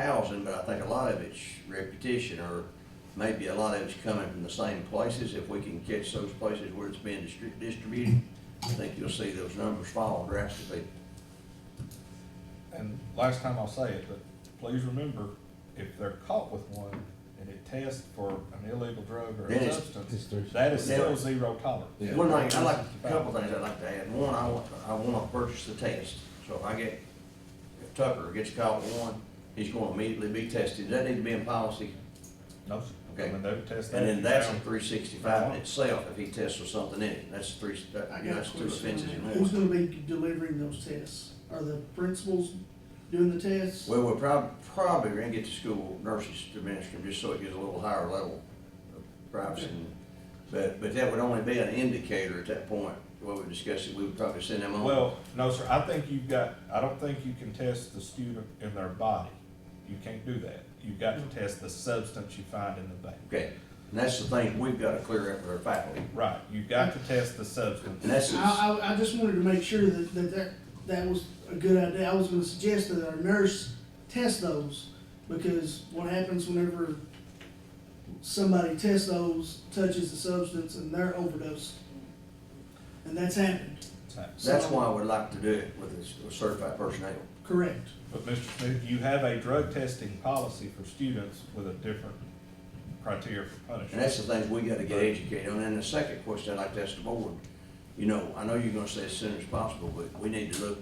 housing, but I think a lot of it's repetition or maybe a lot of it's coming from the same places. If we can catch those places where it's being distri- distributed, I think you'll see those numbers fall drastically. And last time I'll say it, but please remember, if they're caught with one and it tests for an illegal drug or Then a it's- substance, It's thirty- that is still Yeah. zero tolerance. Yeah. One thing, I like, a couple things I'd like to add. One, I want, I wanna purchase the test. So if I get, if Tucker gets caught with one, he's gonna immediately be tested. Does that need to be in policy? No, sir. Okay. When they test that. And then you that's a found- three sixty-five in itself, if he tests with something in it, that's three, that, I got a that's two question on offenses that. in Who's one. gonna be delivering those tests? Are the principals doing the tests? Well, we're prob- probably gonna get the school nurses to administer them, just so it gets a little higher level of privacy. But, but that would only be an indicator at that point, what we discussed, it, we would probably send them on. Well, no, sir, I think you've got, I don't think you can test the student in their body. You can't do that. You've got to test the substance you find in the baby. Okay, and that's the thing, we've gotta clear up with our faculty, Right, you've got to test the substance. and that's, I, I, I just wanted to make sure that, that, that, that was a good idea. I was gonna suggest that our nurse test those, because what happens whenever somebody tests those, touches the substance, and they're overdosed? And that's happened, that's why I would like to do it with this- with certified personnel. correct? But Mr. Smith, you have a drug testing policy for students with a different criteria for And punishment. that's the things we gotta get educated on. And the second question I'd like to ask the board, you know, I know you're gonna say as soon as possible, but we need to look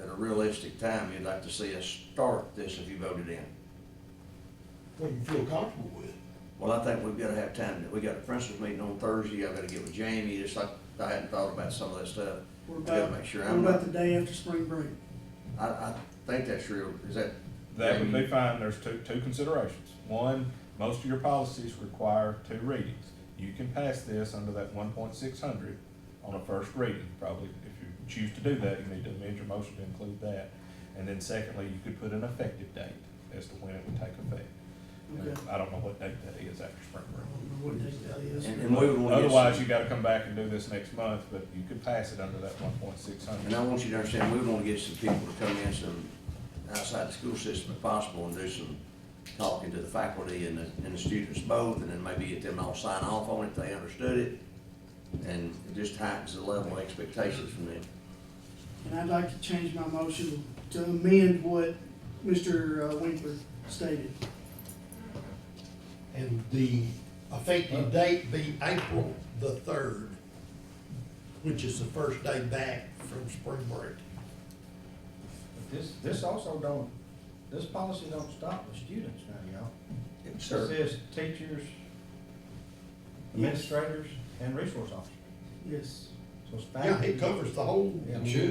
at a realistic time. You'd like to see us start this if you voted in. what you feel comfortable with. Well, I think we've gotta have time. We got a principals meeting on Thursday. I gotta get with Jamie, just like I hadn't thought about some of that stuff. I What gotta about, make sure what I'm not, about the day after spring break? I, I think that's real. Is that, That would be fine, there's two, two considerations. One, most of your policies require two readings. You can pass this under that one point six hundred on a first reading, probably, if you choose to do that, you need to amend your motion to include that. And then secondly, you could put an effective date as to when it would take effect. Okay. And I don't know what date that is after spring break. I don't know what day that is. and and we would want to. get some- Otherwise, you gotta come back and do this next month, but you could pass it under that one point six Uh, And I hundred. want you to understand, we want to get some people to come in, some outside the school system if possible, and do some talking to the faculty and the, and the students both, and then maybe get them all sign off on it, if they understood it. And it just heightens the level of expectations from them. And I'd like to change my motion to amend what Mr. Winkler stated. And the Oh. effective date be April the third, which is the first day back from spring break. This, this also don't, this policy don't stop the students now, y'all. It It serves- says teachers, administrators, and resource officers. Yes. So it's Yeah, it faculty. covers the whole, Yeah. yeah.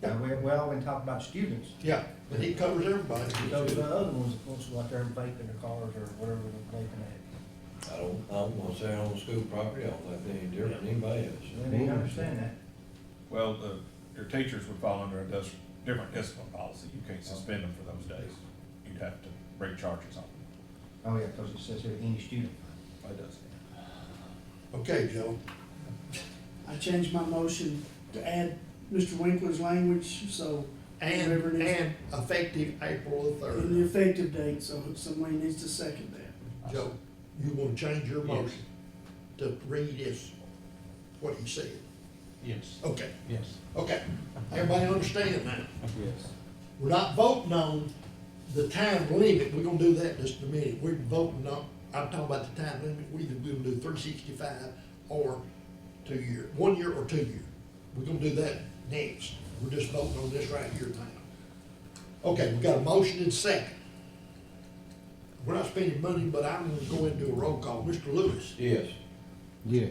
And we, we always talk about students, yeah, but it covers everybody. those are the other ones that wants to go out there and vape in their cars or whatever they're vaping at. I don't, I'm gonna say on school property, I don't think they any different than anybody else. They need to understand that. Well, the, your teachers would fall under a dis- different discipline policy, you can't suspend them for those days. You'd have to bring charges on them, Oh, yeah, because it says here, any student. it does. Okay, Joe, I changed my motion to add Mr. Winkler's language, so, and, Whatever it is. and effective April the and the third. effective date, so somebody needs to second that. Joe, you wanna change your motion to read as what he said? Yes. Okay, Yes. okay, everybody understand that? Yes. We're not voting on the time limit, we're gonna do that in just a minute, we're voting on, I'm talking about the time limit, we're either gonna do three sixty-five or two year, one year or two year. We're gonna do that next, we're just voting on this right here now. Okay, we got a motion and second. We're not spending money, but I'm gonna go into a roll call, Mr. Lewis. Yes. Yes.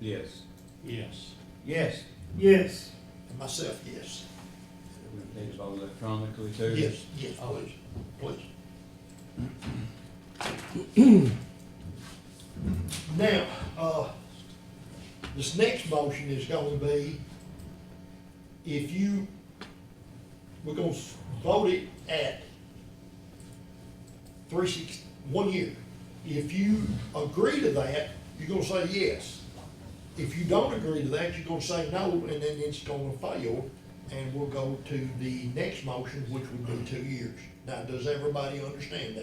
Yes. Yes. Yes. Yes, And myself, yes, They vote electronically too. yes, yes, please, please. Now, uh, this next motion is gonna be, if you, we're gonna s- vote it at three six, one year. If you agree to that, you're gonna say yes. If you don't agree to that, you're gonna say no, and then it's gonna fail, and we'll go to the next motion, which would be two years. Now, does everybody understand that?